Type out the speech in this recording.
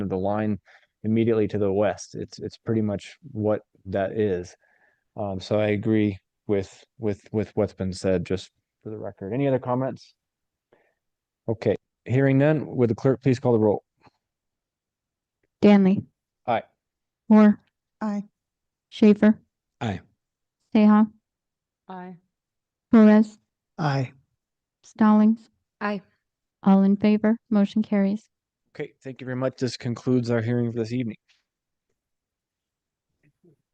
the line immediately to the west. It's, it's pretty much what that is. Um, so I agree with, with, with what's been said, just for the record. Any other comments? Okay, hearing none, would the clerk please call the roll? Danley. Aye. Moore. Aye. Schaefer. Aye. Seha. Aye. Perez. Aye. Stallings. Aye. All in favor. Motion carries. Okay, thank you very much. This concludes our hearing for this evening.